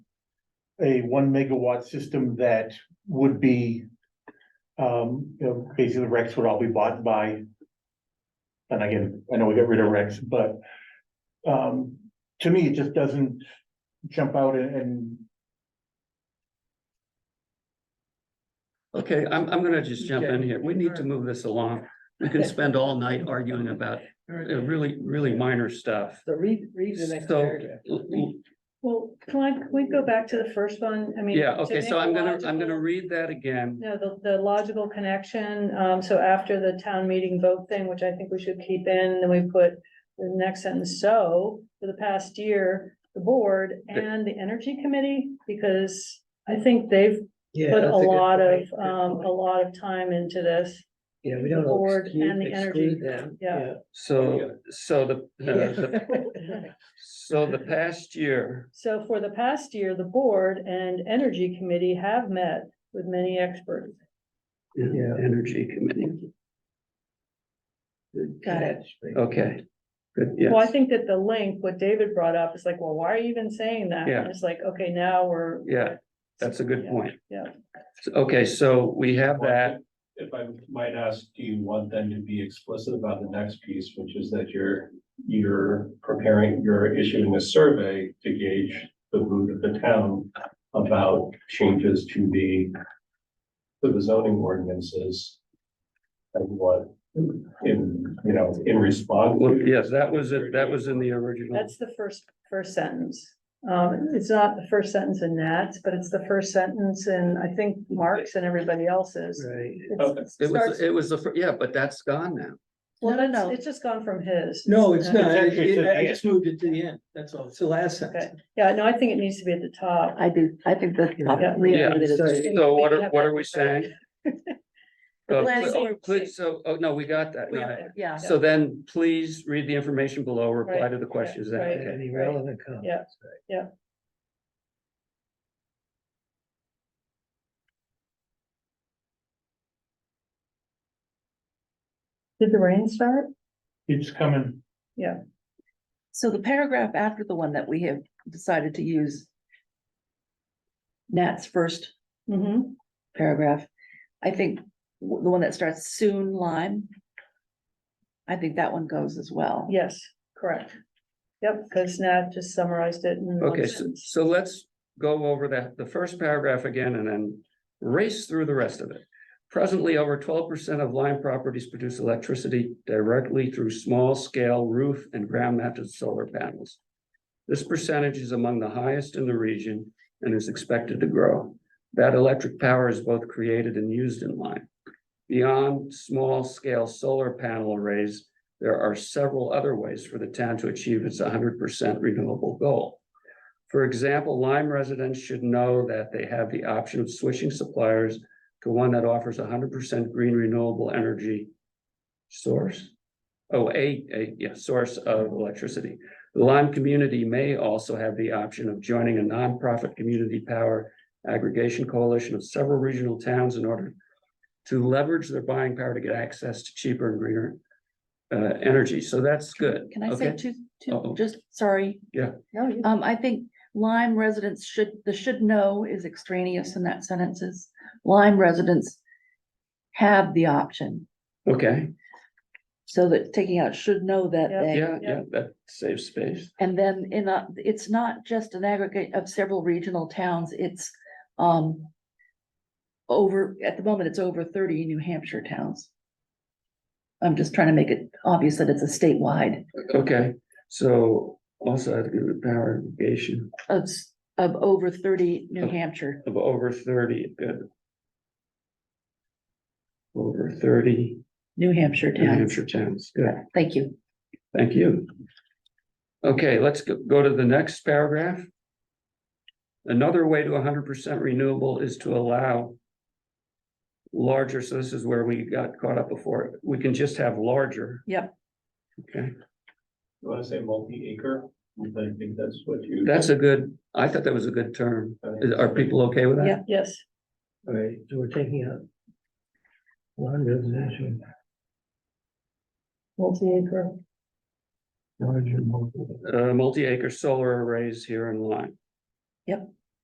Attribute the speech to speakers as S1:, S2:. S1: a one megawatt system that would be. Um, you know, basically Rex would all be bought by. And again, I know we got rid of Rex, but. Um, to me, it just doesn't jump out and- and
S2: Okay, I'm, I'm gonna just jump in here. We need to move this along. We can spend all night arguing about uh, really, really minor stuff.
S3: So read, read the next
S2: So-
S3: paragraph.
S4: Well, can I, can we go back to the first one? I mean.
S2: Yeah,
S4: to
S2: okay,
S4: make
S2: so
S4: a
S2: I'm gonna, I'm
S4: logical-
S2: gonna read that again.
S4: No, the, the logical connection, um, so after the town meeting vote thing, which I think we should keep in, then we put the next sentence, so, for the past year, the board and the energy committee, because I think they've
S3: Yeah,
S4: put a
S3: that's good
S4: lot of,
S3: point. Good
S4: um, a
S3: point.
S4: lot of time into this.
S3: Yeah, we
S4: the
S3: don't
S4: board
S3: exclude,
S4: and the energy.
S3: exclude them.
S4: Yeah.
S2: So, so the, uh, the- so the past year,
S4: So for the past year, the board and energy committee have met with many experts.
S3: Yeah.
S2: Energy Committee,
S4: Got it.
S2: okay. Good, yes.
S4: Well, I think that the link, what David brought up, is like, well, why are you even saying that?
S2: Yeah.
S4: And It's like, okay, now we're.
S2: Yeah, That's a good point.
S4: Yeah.
S2: So- Okay, so we have that.
S5: If I might ask, do you want them to be explicit about the next piece, which is that you're, you're preparing, you're issuing a survey to gauge the mood of the town about changes to the, to the zoning ordinances? And what, in, you know, in response.
S2: Well, yes, that was it. That was in the original.
S4: That's the first, first sentence. Um, it's not the first sentence in Nat's, but it's the first sentence in, I think, Mark's and everybody else's.
S3: Right.
S4: It's-
S2: Oh, It was,
S4: starts-
S2: it was the, fir- yeah, but that's gone now.
S4: Well,
S3: No, no,
S4: that's-
S3: no.
S4: it's just gone from his.
S3: No, it's not.
S1: It's actually to
S3: It-
S1: the
S3: I just moved it to the end. That's all. It's the last sentence.
S4: Yeah, no, I think it needs to be at the top.
S6: I do, I think that's.
S3: Yeah.
S6: really
S2: Yeah.
S6: good.
S3: Sorry.
S2: So what are, what are we saying? Uh,
S6: Planning
S2: pl- oh,
S6: board.
S2: pl- So, oh, no, we got that. No, I-
S6: Yeah,
S2: So then please read the information below, reply to the questions. then.
S4: right.
S2: Okay.
S3: Any relevant comments?
S4: Yeah, yeah. Did the rain start?
S1: it's coming.
S6: so the paragraph after the one that we have decided to use. Nat's first
S4: Mm-hmm.
S6: paragraph, I think w- the one that starts soon Lime. I think that one goes as well.
S4: Yes, correct. Yep, because Nat just summarized it in one
S2: Okay, so,
S4: sentence.
S2: so let's go over that, the first paragraph again and then race through the rest of it. Presently, over twelve percent of Lyme properties produce electricity directly through small scale roof and ground mounted solar panels. This percentage is among the highest in the region and is expected to grow. That electric power is both created and used in Lyme. Beyond small scale solar panel arrays, there are several other ways for the town to achieve its hundred percent renewable goal. For example, Lyme residents should know that they have the option of switching suppliers to one that offers hundred percent green renewable energy source. Oh, a, a, yeah, source of electricity. The Lyme community may also have the option of joining a nonprofit community power aggregation coalition of several regional towns in order to leverage their buying power to get access to cheaper and greener uh, energy. So that's good.
S6: Can I say
S2: Okay?
S6: two,
S2: Uh-oh.
S6: two, just, sorry,
S3: Oh,
S4: No, you-
S6: um, I think Lyme residents should, the should know is extraneous in that sentences. Lyme residents have the option,
S2: Okay,
S6: so that taking out should know that
S4: Yeah.
S6: they.
S2: yeah, yeah, that saves space.
S6: And then in a, it's not just an aggregate of several regional towns, it's um. Over, at the moment, it's over thirty New Hampshire towns. I'm just trying to make it obvious that it's a statewide
S2: Okay, so also I had to give it power irrigation
S6: of s- of over thirty New
S2: Okay.
S6: Hampshire.
S2: of over thirty, good. Over thirty
S6: New Hampshire
S2: New
S6: towns.
S2: Hampshire towns, good,
S6: Thank you.
S2: thank you. Okay, let's go, go to the next paragraph. Another way to hundred percent renewable is to allow. Larger, so this is where we got caught up before, we can just have larger.
S6: Yep.
S2: Okay,
S5: You want to say multi-acre? I think that's what you.
S2: that's a good, I thought that was a good term, Is- are people okay with that?
S6: Yeah.
S4: Yes,
S3: All right, so we're taking out. One residential,
S4: multi-acre.
S3: larger multiple.
S2: uh, multi-acre solar arrays here in line.
S6: Yep.